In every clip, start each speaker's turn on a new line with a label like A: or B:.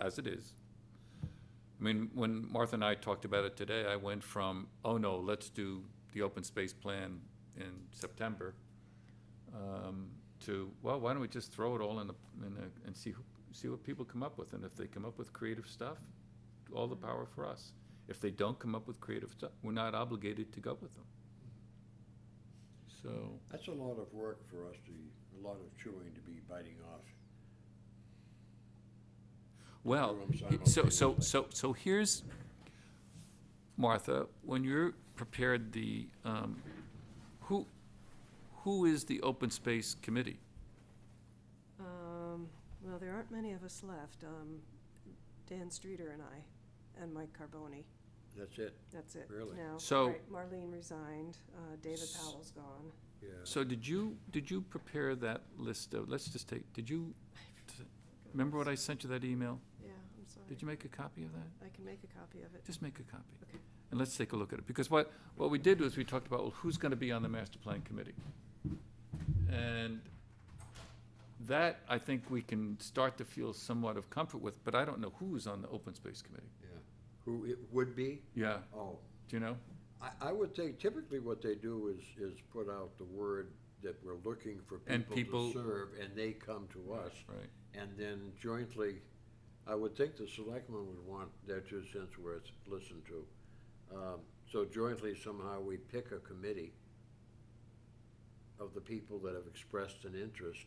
A: as it is. I mean, when Martha and I talked about it today, I went from, oh no, let's do the open space plan in September, um, to, well, why don't we just throw it all in the, in the, and see, who- see what people come up with, and if they come up with creative stuff, all the power for us. If they don't come up with creative stuff, we're not obligated to go with them. So,
B: That's a lot of work for us to, a lot of chewing to be biting off.
A: well,
B: Everyone's
A: he- so, so,
B: simultaneously.
A: so, so here's, Martha, when you're prepared the, um, who, who is the open space committee?
C: Um, well, there aren't many of us left. Um, Dan Streeter and I, and Mike Carboni.
B: That's it,
C: That's it.
B: Really?
C: now.
A: So-
C: Right, Marlene resigned, uh, David Powell's gone.
B: yeah.
A: So did you, did you prepare that list of, let's just take, did you, remember what I sent you that email?
C: Yeah, I'm sorry.
A: Did you make a copy of that?
C: I can make a copy of it.
A: Just make a copy.
C: Okay.
A: And let's take a look at it, because what, what we did was we talked about, well, who's gonna be on the master plan committee? And that, I think we can start to feel somewhat of comfort with, but I don't know who's on the open space committee.
B: Yeah. Who it would be?
A: Yeah,
B: Oh,
A: do you know?
B: I, I would say typically what they do is, is put out the word that we're looking for
A: And
B: people
A: people-
B: to serve, and they come to us.
A: Right.
B: And then jointly, I would think the selectmen would want their two cents worth listened to. Um, So jointly somehow we pick a committee of the people that have expressed an interest,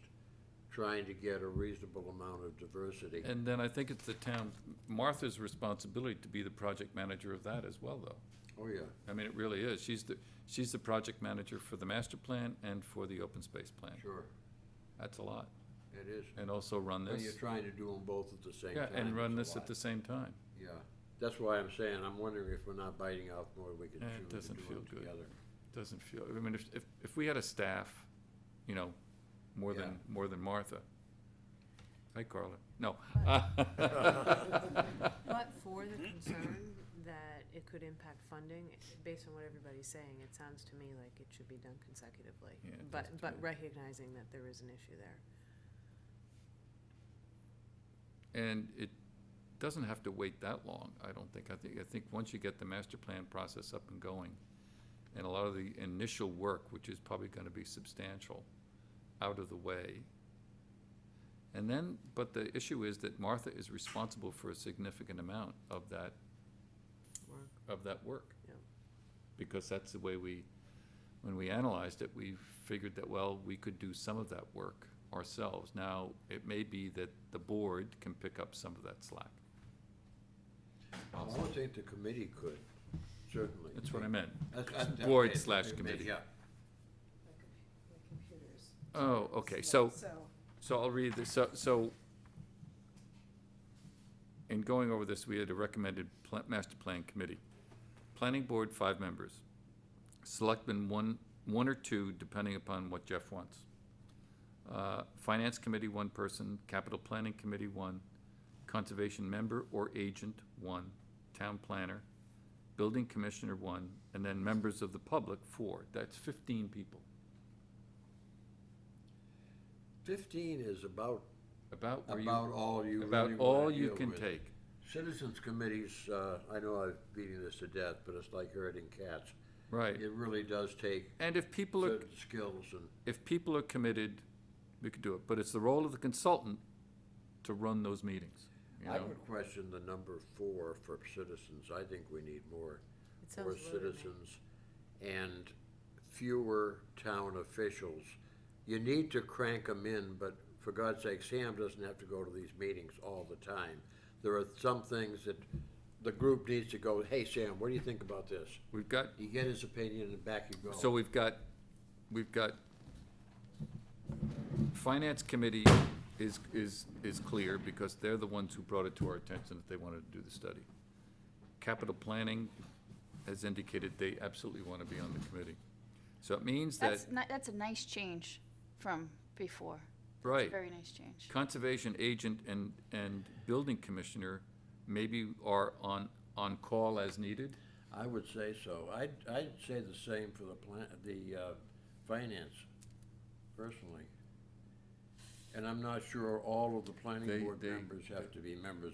B: trying to get a reasonable amount of diversity.
A: And then I think it's the town, Martha's responsibility to be the project manager of that as well, though.
B: Oh, yeah.
A: I mean, it really is. She's the, she's the project manager for the master plan and for the open space plan.
B: Sure,
A: That's a lot.
B: it is.
A: And also run
B: When you're
A: this.
B: trying to do them both at the same
A: Yeah,
B: time.
A: and run this
B: it's a
A: at
B: lot.
A: the same time.
B: Yeah, that's why I'm saying, I'm wondering if we're not biting off more than we can
A: Yeah, it
B: chew to
A: doesn't
B: do
A: feel
B: them
A: good.
B: together.
A: Doesn't feel, I mean, if, if, if we had a staff, you know, more than, more than Martha. Hi, Carla. No.
D: But
A: Uh-huh.
D: for the concern that it could impact funding, based on what everybody's saying, it sounds to me like it should be done consecutively.
A: Yeah, it
D: But,
A: does to
D: but
A: me.
D: recognizing that there is an issue there.
A: And it doesn't have to wait that long, I don't think. I think, I think once you get the master plan process up and going, and a lot of the initial work, which is probably gonna be substantial, out of the way. And then, but the issue is that Martha is responsible for a significant amount of that,
D: Work.
A: of that work.
D: Yeah.
A: Because that's the way we, when we analyzed it, we figured that, well, we could do some of that work ourselves. Now, it may be that the board can pick up some of that slack.
B: I would think the committee could, certainly.
A: That's what I meant.
B: That's- that's- that's-
A: Board
B: okay,
A: slash
B: yeah,
A: committee.
B: Yeah,
C: My com- my computer's
A: Oh, okay, so,
C: So,
A: so I'll read this, so, so in going over this, we had a recommended pla- master plan committee. Planning board, five members. Selectmen, one, one or two, depending upon what Jeff wants. Uh, Finance committee, one person. Capital planning committee, one. Conservation member or agent, one. Town planner. Building commissioner, one. And then members of the public, four. That's fifteen people.
B: fifteen is about,
A: About where you.
B: about all you really
A: About
B: wanna
A: all you
B: deal
A: can
B: with.
A: take.
B: Citizens committees, uh, I know I'm beating this to death, but it's like herding cats.
A: Right.
B: It really does take
A: And if people are,
B: certain skills and,
A: if people are committed, we could do it. But it's the role of the consultant to run those meetings, you
B: I
A: know?
B: would question the number four for citizens, I think we need more.
D: It
B: more
D: sounds low to me.
B: citizens and fewer town officials. You need to crank them in, but for God's sake, Sam doesn't have to go to these meetings all the time. There are some things that the group needs to go, hey, Sam, what do you think about this?
A: We've got,
B: You get his opinion and back you go.
A: so we've got, we've got, Finance Committee is, is, is clear because they're the ones who brought it to our attention that they wanted to do the study. Capital Planning has indicated they absolutely want to be on the committee. So it means that,
E: That's, ni- that's a nice change from before.
A: right.
E: Very nice change.
A: conservation agent and, and building commissioner maybe are on, on call as needed?
B: I would say so. I'd, I'd say the same for the plan, the, uh, finance, personally. And I'm not sure all of the planning
A: They-
B: board
A: they-
B: members have to be members